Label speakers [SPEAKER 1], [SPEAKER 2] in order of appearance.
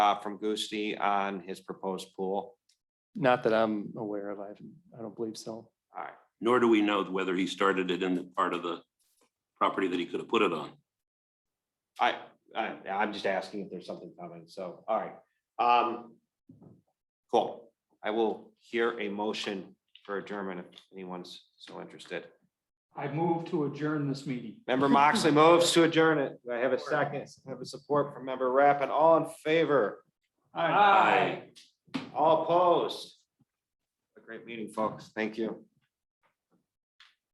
[SPEAKER 1] uh, from Gusti on his proposed pool?
[SPEAKER 2] Not that I'm aware of. I haven't, I don't believe so.
[SPEAKER 1] All right,
[SPEAKER 3] nor do we know whether he started it in the part of the property that he could have put it on.
[SPEAKER 1] I, I, I'm just asking if there's something coming, so, all right. Um, cool. I will hear a motion for adjournment if anyone's so interested.
[SPEAKER 4] I move to adjourn this meeting.
[SPEAKER 1] Member Moxley moves to adjourn it. Do I have a second. I have a support from member Rappin. All in favor?
[SPEAKER 4] Aye.
[SPEAKER 3] Aye.
[SPEAKER 1] All opposed? A great meeting, folks. Thank you.